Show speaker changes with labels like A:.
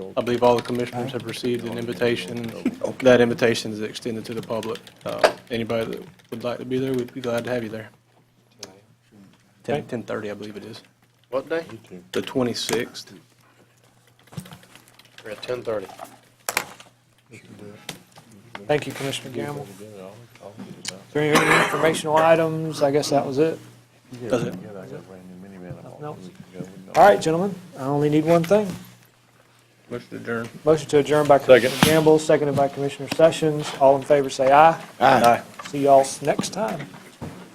A: I believe all the commissioners have received an invitation. That invitation is extended to the public. Uh, Anybody that would like to be there, we'd be glad to have you there. Ten, 10:30, I believe it is.
B: What day?
A: The 26th.
B: We're at ten thirty.
C: Thank you, Commissioner Gamble. Is there any other informational items? I guess that was it.
A: Does it?
C: Nothing else? All right, gentlemen, I only need one thing.
A: Motion adjourned.
C: Motion to adjourn by Commissioner Gamble, seconded by Commissioner Sessions. All in favor, say aye.
A: Aye.
C: See y'all next time.